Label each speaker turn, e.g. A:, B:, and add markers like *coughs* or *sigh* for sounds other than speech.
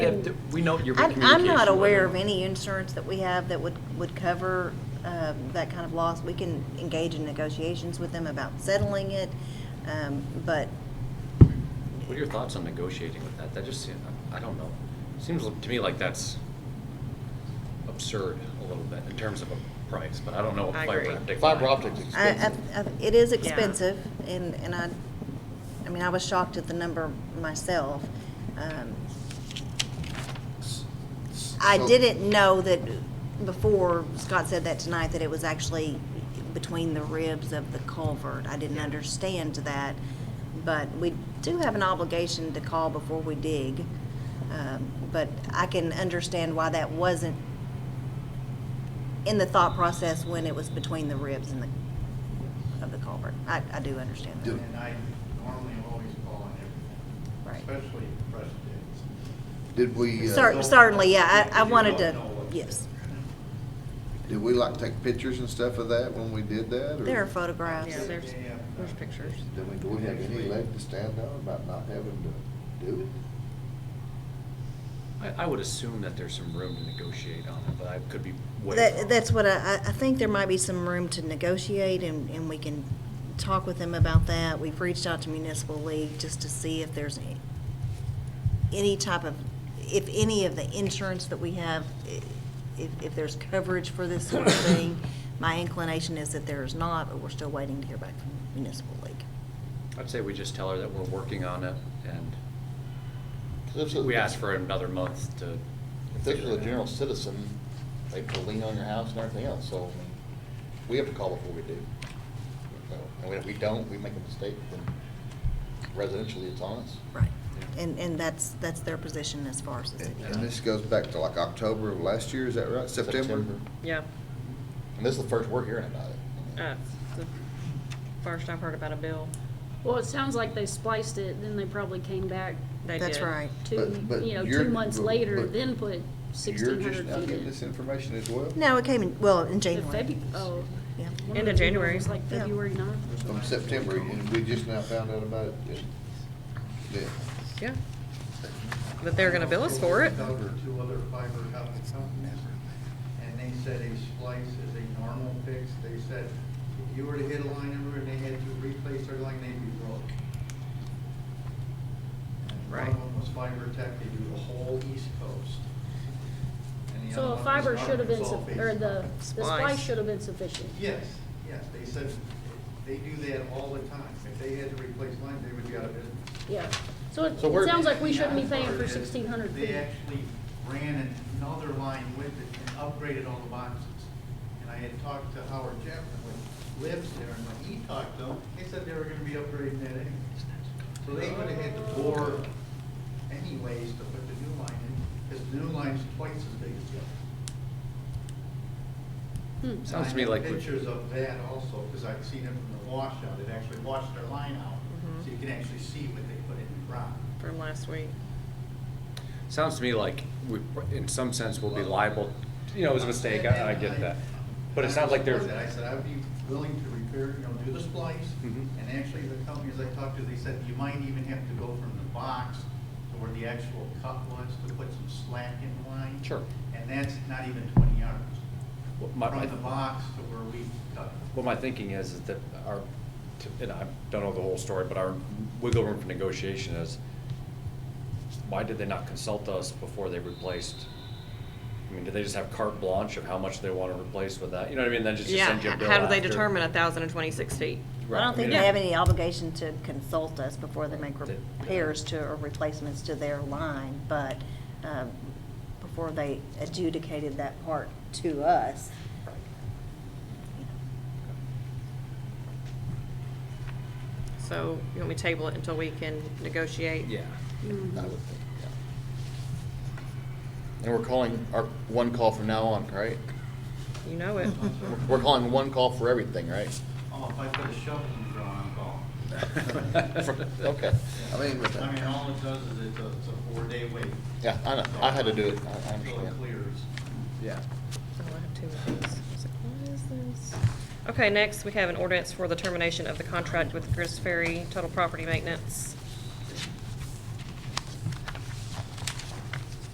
A: Yeah, We know you're in
B: I'm, I'm
A: communication with
B: not aware of
A: them.
B: any insurance that we have that would, would cover uh, that kind of loss. We can engage in negotiations with them about settling it, um, but
A: What are your thoughts on negotiating with that? That just, seem- I don't know. Seems to me like that's absurd a little bit in terms of a price, but I don't know what
C: I
A: fiber
C: agree.
A: optic.
D: Fiber
A: line
D: optics
A: costs.
B: I, I, I- it is
C: Yeah.
B: expensive, and, and I, I mean, I was shocked at the number myself. Um, I
D: So-
B: didn't know that before Scott said that tonight, that it was actually between the ribs of the culvert. I didn't understand that, but we do have an obligation to call before we dig. Um, But I can understand why that wasn't in the thought process when it was between the ribs and the, of the culvert. I, I do understand that,
E: And I normally always call on everything,
B: right.
E: especially presidents.
D: Did we, uh,
B: Cer- Certainly, yeah, I, I wanted to, yes.
D: did we like take pictures and stuff of that when we did that? or
B: There are photographs.
C: Yeah, there's, there's pictures.
D: Did we, do we have any leg to stand on about not having to do it?
A: I, I would assume that there's some room to negotiate on it, but I could be way wrong.
B: That, that's what I, I- I think there might be some room to negotiate and, and we can talk with them about that. We've reached out to Municipal League just to see if there's any, any type of, if any of the insurance that we have, i- if, if there's coverage for this sort
D: *coughs*
B: of thing. My inclination is that there is not, but we're still waiting to hear back from Municipal League.
A: I'd say we just tell her that we're working on it and
F: 'Cause This is-
A: we ask for another month to.
F: If this was a general citizen, they put a lien on your house and everything else, so, I mean, we have to call before we do. So, And if we don't, we make a mistake, then residentially, it's on us.
B: Right. And, and that's, that's their position as far as the city.
D: And- And this goes back to like October of last year, is that right? September?
C: Yeah.
F: And this is the first we're hearing about it.
C: Uh, it's the First I've heard about a bill.
G: Well, it sounds like they spliced it, then they probably came back
C: They
B: That's
C: did.
B: right.
G: two,
D: But- but
G: you know,
D: you're-
G: two months
D: but-
G: later,
D: but
G: then put
D: You're
G: sixteen
D: just
G: hundred
D: now
G: feet
D: getting
G: in.
D: this information as well?
B: No, it came in, well, in
G: The
B: January.
G: February, oh.
B: Yeah.
G: one of
C: End
G: the
C: of January.
G: It was like
B: Yeah.
G: February ninth.
D: From September, and we just now found out about it. Yeah.
C: Yeah. But they're gonna bill us for it.
E: Two other fiber optic companies, and they said a splice is a normal fix. They said if you were to hit a line number and they had to replace their line, they'd be broke. And
C: Right.
E: One of them was fiber tech, they do the whole east coast. And the
G: So
E: other
G: a
E: one was
G: fiber should have been,
E: Arkansas-based
G: suff- or the,
E: company.
G: the
C: Splice.
G: splice should have been sufficient.
E: Yes, yes, they said they do that all the time. If they had to replace lines, they would be out of business.
G: Yeah. So it,
F: So we're-
G: it sounds like we shouldn't be
E: Yeah,
G: paying
E: part
G: for
E: of it is
G: sixteen hundred feet.
E: They actually ran another line with it and upgraded all the boxes. And I had talked to Howard Chapman, who lives there, and when he talked to him, he said they were gonna be upgrading that anyway. So they would've had to bore anyways to put the new line in, because the new line's twice as big as the other.
G: Hmm.
A: Sounds to
E: And
A: me
E: I
A: like
E: have
A: we-
E: Pictures of that also, because I've seen it from the washout, it actually washed their line out, so you can actually see what they put in the ground.
C: From last week.
A: Sounds to me like we, in some sense, we'll be liable, you know, it was a mistake, I, I get that. But it sounds like there's.
E: I said, I'd be willing to repair, you know, do the splice,
A: Mhm.
E: and actually the companies I talked to, they said you might even have to go from the box to where the actual cut was to put some slack in line.
A: Sure.
E: And that's not even twenty yards,
A: What my- my-
E: from the box to where we cut.
A: Well, my thinking is, is that our, and I don't know the whole story, but our wiggle room for negotiation is, why did they not consult us before they replaced? I mean, did they just have carte blanche of how much they want to replace with that? You know what I mean? Then just
C: Yeah,
A: send you a bill
C: how do they
A: after.
C: determine a thousand and twenty-six feet?
A: Right,
B: I don't think
A: mean,
B: they
A: it-
B: have any obligation to consult us before they make
A: They-
B: repairs to, or replacements to their line, but um, before they adjudicated that part to us.
C: So you want me to table it until we can negotiate?
A: Yeah.
G: Mhm.
F: I would think, yeah. And we're calling our one call from now on, right?
C: You know it. *laughs*
F: We're calling one call for everything, right?
E: Oh, if I put a shovel in the ground, I'm calling.
F: *laughs* Okay.
D: I mean, but-
E: I mean, all it does is it's a, it's a four-day wait.
F: Yeah, I know. I had to do it. I- I
E: Until it
F: understand.
E: clears.
A: Yeah.
C: Oh, I have two of those. I was like, what is this? Okay, next, we have an ordinance for the termination of the contract with Chris Ferry, total property maintenance.